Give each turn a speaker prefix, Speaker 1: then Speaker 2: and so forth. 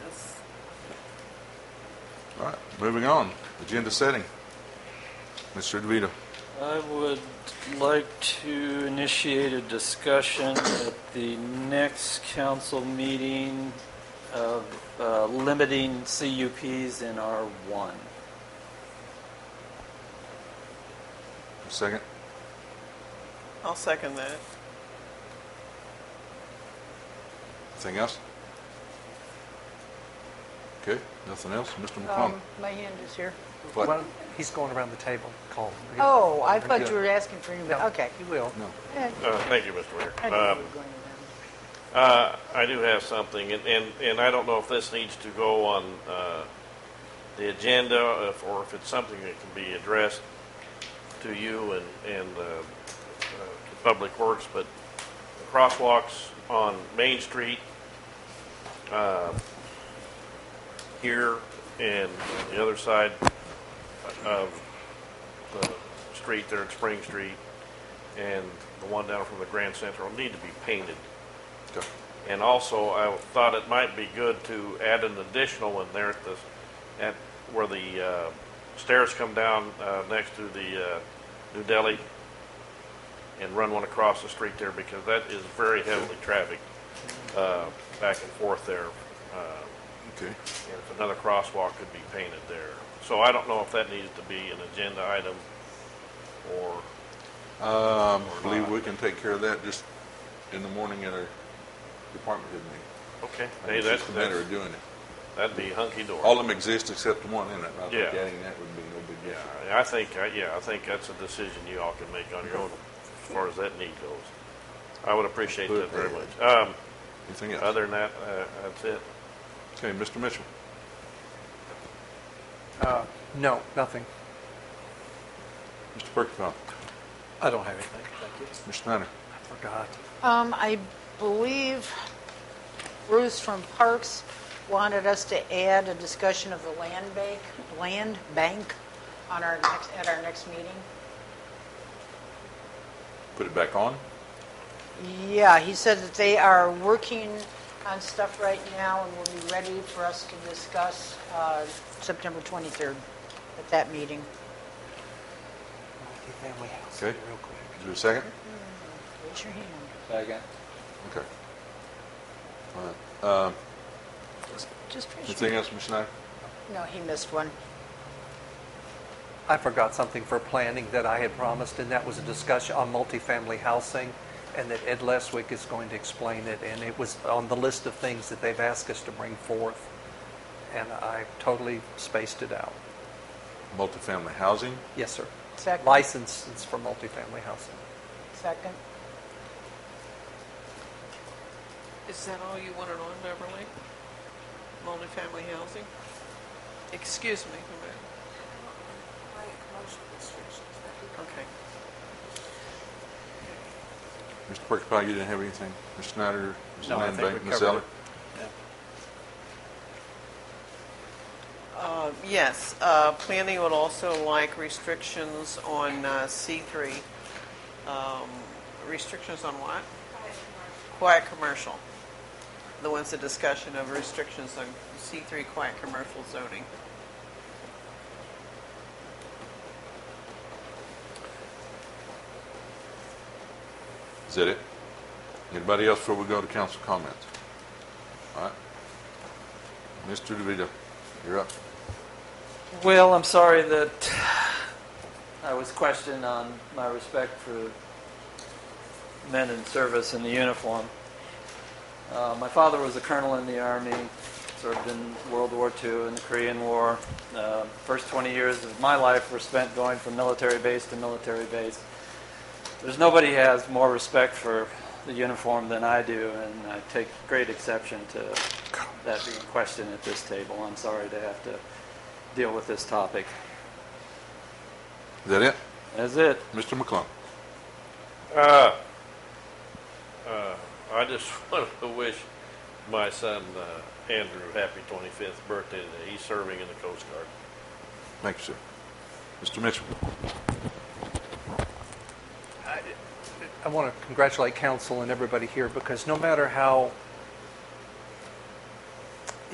Speaker 1: All right, moving on. Agenda setting. Mr. DeVito.
Speaker 2: I would like to initiate a discussion at the next council meeting of uh, limiting CUPs in R1.
Speaker 1: Second.
Speaker 3: I'll second that.
Speaker 1: Anything else? Okay, nothing else? Mr. McClung?
Speaker 4: Um, My hand is here.
Speaker 1: What?
Speaker 5: Well, he's going around the table, Call.
Speaker 4: Oh, I thought you were asking for anybody, okay.
Speaker 5: He will.
Speaker 1: No.
Speaker 4: Eh,
Speaker 6: Uh, Thank you, Mr.
Speaker 4: I
Speaker 6: Mayor.
Speaker 4: knew you
Speaker 6: Um,
Speaker 4: were going around.
Speaker 6: uh, I do have something, and, and, and I don't know if this needs to go on uh, the agenda if- or if it's something that can be addressed to you and, and uh, uh, to Public Works, but crosswalks on Main Street uh, here and on the other side of the street there at Spring Street and the one down from the Grand Central need to be painted.
Speaker 1: Okay.
Speaker 6: And also, I thought it might be good to add an additional one there at the, at where the uh, stairs come down uh, next to the uh, New Delhi and run one across the street there because that is very heavily trafficked uh, back and forth there. Uh,
Speaker 1: Okay.
Speaker 6: And if another crosswalk could be painted there. So I don't know if that needs to be an agenda item or,
Speaker 1: Um, I believe we can take care of that just in the morning at our department head meeting.
Speaker 6: okay,
Speaker 1: I
Speaker 6: hey,
Speaker 1: think
Speaker 6: that's,
Speaker 1: It's just a matter
Speaker 6: that's-
Speaker 1: of doing it.
Speaker 6: that'd be hunky dory.
Speaker 1: All of them exist except one, isn't it? I think
Speaker 6: Yeah.
Speaker 1: adding that would be no big deal.
Speaker 6: Yeah, I think, I- yeah, I think that's a decision you all can make on your own as far as that need goes. I would appreciate that very much. Um,
Speaker 1: Anything else?
Speaker 6: Other than that, uh, that's it.
Speaker 1: Okay, Mr. Mitchell.
Speaker 5: Uh, No, nothing.
Speaker 1: Mr. Perkypile.
Speaker 5: I don't have anything, thank you.
Speaker 1: Mr. Snyder.
Speaker 5: I forgot.
Speaker 4: Um, I believe Bruce from Parks wanted us to add a discussion of the land bank, land bank on our next, at our next meeting.
Speaker 1: Put it back on?
Speaker 4: Yeah, he said that they are working on stuff right now and will be ready for us to discuss, uh, September 23rd at that meeting.
Speaker 5: Multi-family house, real
Speaker 1: Okay.
Speaker 5: quick.
Speaker 1: Is there a second?
Speaker 4: Raise your hand.
Speaker 1: Okay. All right. Um,
Speaker 4: Just raise your
Speaker 1: anything else, Mr. Snyder?
Speaker 4: No, he missed one.
Speaker 5: I forgot something for planning that I had promised, and that was a discussion on multifamily housing, and that Ed Leswick is going to explain it, and it was on the list of things that they've asked us to bring forth, and I totally spaced it out.
Speaker 1: Multifamily housing.
Speaker 5: Yes, sir.
Speaker 4: Second.
Speaker 5: Licenses for multifamily housing.
Speaker 4: Second.
Speaker 3: Is that all you wanted on Beverly? Multifamily housing? Excuse me. who am I? Okay.
Speaker 1: Mr. Perkypile, you didn't have anything? Mr. Snyder, Mr.
Speaker 5: No, I
Speaker 1: Land
Speaker 5: think
Speaker 1: Bank,
Speaker 5: we
Speaker 1: Ms.
Speaker 5: covered
Speaker 1: Eller?
Speaker 5: it.
Speaker 3: Uh, Yes, uh, planning would also like restrictions on uh, C3. Um, Restrictions on what? Quiet commercial. There was a discussion of restrictions on C3 quiet commercial zoning.
Speaker 1: Is that it? Anybody else before we go to council comments? All right. Mr. DeVito, you're up.
Speaker 2: Well, I'm sorry that I was questioned on my respect for men in service in the uniform. Uh, my father was a colonel in the Army, served in World War II and the Korean War. Uh, first 20 years of my life were spent going from military base to military base. There's nobody has more respect for the uniform than I do, and I take great exception to that being questioned at this table. I'm sorry to have to deal with this topic.
Speaker 1: Is that it?
Speaker 2: That's it.
Speaker 1: Mr. McClung?
Speaker 6: Uh, uh, I just want to wish my son, uh, Andrew, happy 25th birthday today. He's serving in the Coast Guard.
Speaker 1: Thank you, sir. Mr. Mitchell?
Speaker 5: I want to congratulate council and everybody here because no matter how